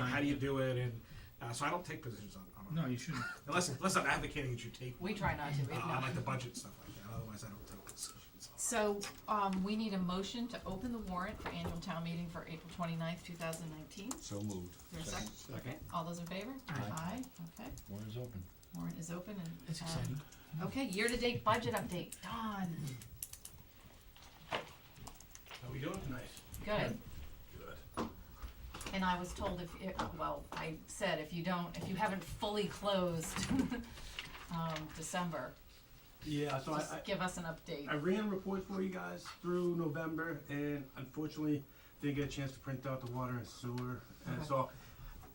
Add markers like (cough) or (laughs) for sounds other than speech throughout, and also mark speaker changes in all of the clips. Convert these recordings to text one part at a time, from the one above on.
Speaker 1: how do you do it? And uh, so I don't take positions on, on
Speaker 2: No, you shouldn't.
Speaker 1: unless unless I'm advocating that you take
Speaker 3: We try not to,
Speaker 1: uh,
Speaker 3: if
Speaker 1: on
Speaker 3: not.
Speaker 1: like the budget stuff like that. Otherwise, I don't take positions. on.
Speaker 3: So, um, we need a motion to open the warrant for annual town meeting for April twenty-ninth, two thousand nineteen.
Speaker 4: So moved.
Speaker 3: There's a second?
Speaker 4: Second.
Speaker 3: Okay, all those in favor?
Speaker 4: Aye.
Speaker 3: okay.
Speaker 4: Warrant is open.
Speaker 3: Warrant is open and.
Speaker 2: It's
Speaker 3: um,
Speaker 2: exciting.
Speaker 3: Okay, year-to-date budget update, Dawn,
Speaker 1: How we doing tonight?
Speaker 3: good.
Speaker 1: Good.
Speaker 3: And I was told if, it- well, I said if you don't, if you haven't fully closed, (laughs) um, December,
Speaker 5: Yeah, so I,
Speaker 3: just give us an update.
Speaker 5: I, I ran reports for you guys through November, and unfortunately, didn't get a chance to print out the water and sewer. And
Speaker 3: Okay.
Speaker 5: so,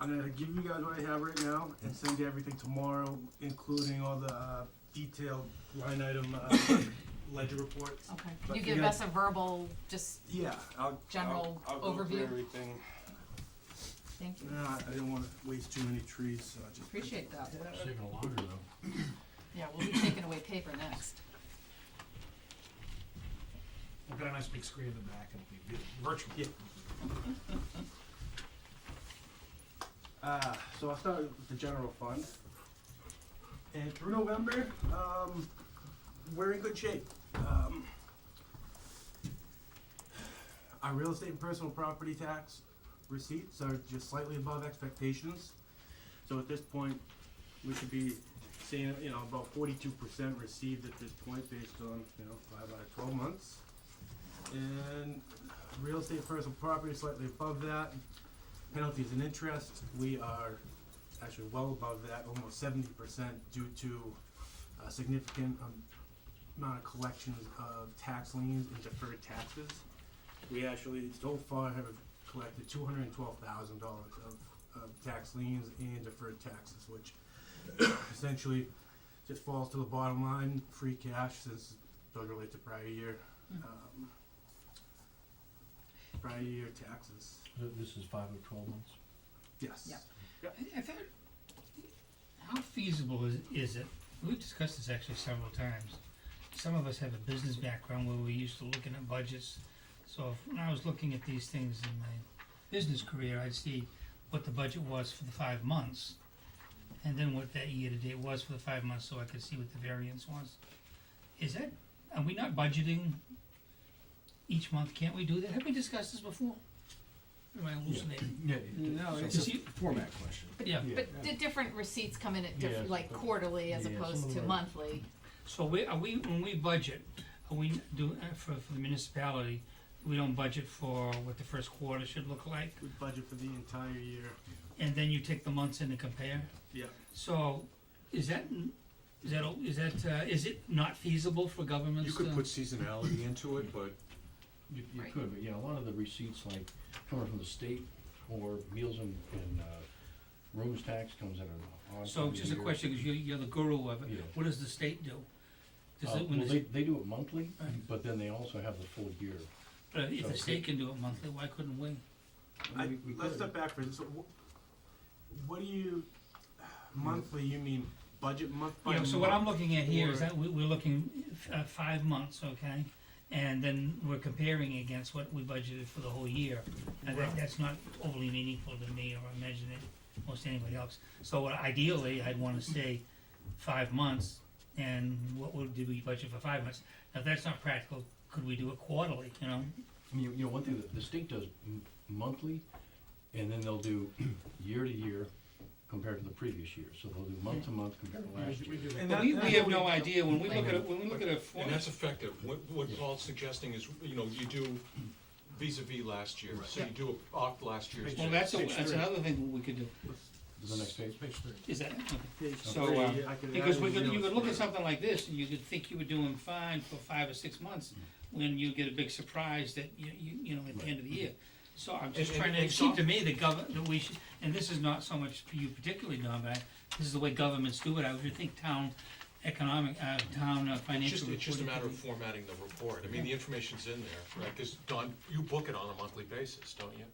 Speaker 5: I'm gonna give you guys what I have right now and send you everything tomorrow, including all the uh, detailed line item uh, ledger reports.
Speaker 3: Okay,
Speaker 5: But
Speaker 3: you
Speaker 5: you
Speaker 3: give
Speaker 5: got-
Speaker 3: us a verbal, just,
Speaker 5: Yeah, I'll,
Speaker 3: General
Speaker 5: I'll, I'll go through
Speaker 3: overview.
Speaker 5: everything.
Speaker 3: thank you,
Speaker 5: Nah, I didn't want to waste too many trees, so I just.
Speaker 3: appreciate that.
Speaker 2: Uh,
Speaker 4: Saving a longer though.
Speaker 3: Yeah, we'll be taking away paper next.
Speaker 1: We've got a nice big screen in the back, and it'll be virtual.
Speaker 5: Yeah. Uh, so I'll start with the general fund. And through November, um, we're in good shape. Um, our real estate and personal property tax receipts are just slightly above expectations. So at this point, we should be seeing, you know, about forty-two percent received at this point based on, you know, five out of twelve months. And real estate and personal property slightly above that penalties and interest, we are actually well above that, almost seventy percent due to a significant um, amount of collections of tax liens and deferred taxes. We actually so far have collected two hundred and twelve thousand dollars of, of tax liens and deferred taxes, which essentially just falls to the bottom line, free cash, since it doesn't relate to prior year, um, prior year taxes,
Speaker 4: This is five or twelve months?
Speaker 5: yes.
Speaker 3: Yep.
Speaker 2: I, I thought, how feasible is, is it? We've discussed this actually several times. Some of us have a business background where we're used to looking at budgets. So if, when I was looking at these things in my business career, I'd see what the budget was for the five months and then what that year to date was for the five months so I could see what the variance was. Is that, are we not budgeting each month? Can't we do that? Have we discussed this before? Or Am I hallucinating?
Speaker 4: Yeah.
Speaker 5: No,
Speaker 4: so
Speaker 5: it's
Speaker 2: Is
Speaker 4: It's
Speaker 2: he-
Speaker 4: a format question.
Speaker 2: Yeah.
Speaker 3: But the different receipts come in at
Speaker 4: Yeah.
Speaker 3: different, like quarterly as
Speaker 4: Yeah,
Speaker 3: opposed
Speaker 4: some
Speaker 3: to
Speaker 4: are-
Speaker 3: monthly.
Speaker 2: So we, are we, when we budget, are we do, uh, for, for the municipality, we don't budget for what the first quarter should look like,
Speaker 5: We budget for the entire year.
Speaker 2: and then you take the months in and compare?
Speaker 5: Yeah.
Speaker 2: So, is that, is that, is that, uh, is it not feasible for governments
Speaker 6: You
Speaker 2: to?
Speaker 6: could put seasonality into it, but
Speaker 4: You, you
Speaker 3: Right.
Speaker 4: could, but yeah, a lot of the receipts like coming from the state or meals and, and, uh, rooms tax comes in an odd.
Speaker 2: So
Speaker 4: time of
Speaker 2: just a
Speaker 4: year.
Speaker 2: question, cause you're, you're the guru of it,
Speaker 4: Yeah.
Speaker 2: what does the state do? Does
Speaker 4: Uh,
Speaker 2: it, when
Speaker 4: well,
Speaker 2: the,
Speaker 4: they,
Speaker 2: s-
Speaker 4: they do it monthly,
Speaker 2: Right.
Speaker 4: but then they also have the full year.
Speaker 2: but if the
Speaker 4: okay.
Speaker 2: state can do it monthly, why couldn't we?
Speaker 5: I,
Speaker 4: We- we
Speaker 5: let's
Speaker 4: could.
Speaker 5: step back for this. So wh- what do you, monthly, you mean budget month by
Speaker 2: Yeah, so what I'm
Speaker 5: month,
Speaker 2: looking at here is
Speaker 5: or-
Speaker 2: that we, we're looking f- uh, five months, okay? And then we're comparing against what we budgeted for the whole year. And that,
Speaker 1: Right.
Speaker 2: that's not overly meaningful to me or I imagine it most anybody else. So what- ideally, I'd wanna say five months and what would, did we budget for five months? Now, if that's not practical, could we do it quarterly, you know?
Speaker 4: I mean, you know, one thing that the state does m- monthly, and then they'll do (clears throat) year to year compared to the previous year. So they'll do month to month compared to last
Speaker 1: We
Speaker 4: year.
Speaker 1: do that.
Speaker 5: And
Speaker 2: But
Speaker 5: that-
Speaker 2: we,
Speaker 5: that's
Speaker 2: we
Speaker 5: what
Speaker 2: have no idea, when we
Speaker 3: Wait a
Speaker 2: look at, a- when we look at a form.
Speaker 6: and that's effective. What what Paul's suggesting is, you know, you do vis-à-vis last year, so you do it off last year's.
Speaker 2: Well, that's, a- that's another thing we could do,
Speaker 4: Is the next page?
Speaker 1: Page three.
Speaker 2: is that, okay.
Speaker 5: Page
Speaker 2: So,
Speaker 5: three,
Speaker 2: uh,
Speaker 5: I could
Speaker 2: Because
Speaker 5: add
Speaker 2: we could,
Speaker 5: in
Speaker 2: you could
Speaker 5: zeros.
Speaker 2: look at something like this, and you could think you were doing fine for five or six months, when you get a big surprise that you, you, you know, at the end of the year. So I'm just
Speaker 6: And-
Speaker 2: trying to,
Speaker 6: and-
Speaker 2: it seemed to me that government, that we should, and this is not so much for you particularly, Don, but I- this is the way governments do it, I would think town economic, uh, town uh,
Speaker 6: It's
Speaker 2: financial.
Speaker 6: just, it's just a
Speaker 2: reporting
Speaker 6: matter of
Speaker 2: could
Speaker 6: formatting the report. I mean, the information's in there, right? Because, Don, you book it on a monthly basis, don't you?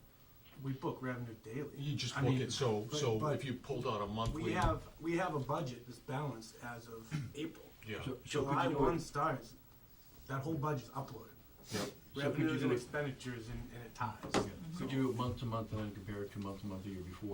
Speaker 5: We book revenue daily.
Speaker 6: You just
Speaker 5: I
Speaker 6: book
Speaker 5: mean,
Speaker 6: it, so,
Speaker 5: but-
Speaker 6: so
Speaker 5: but
Speaker 6: if you pulled out a monthly.
Speaker 5: We have, we have a budget that's balanced as
Speaker 4: (clears throat)
Speaker 5: of April.
Speaker 6: Yeah,
Speaker 4: So- so could
Speaker 5: July
Speaker 4: you do it-
Speaker 5: one starts, that whole budget's uploaded.
Speaker 6: yeah.
Speaker 4: you
Speaker 5: Revenues
Speaker 4: do
Speaker 5: and
Speaker 4: it-
Speaker 5: expenditures and, and it ties.
Speaker 4: Could you do it month to month and then compare it to month to month the year before?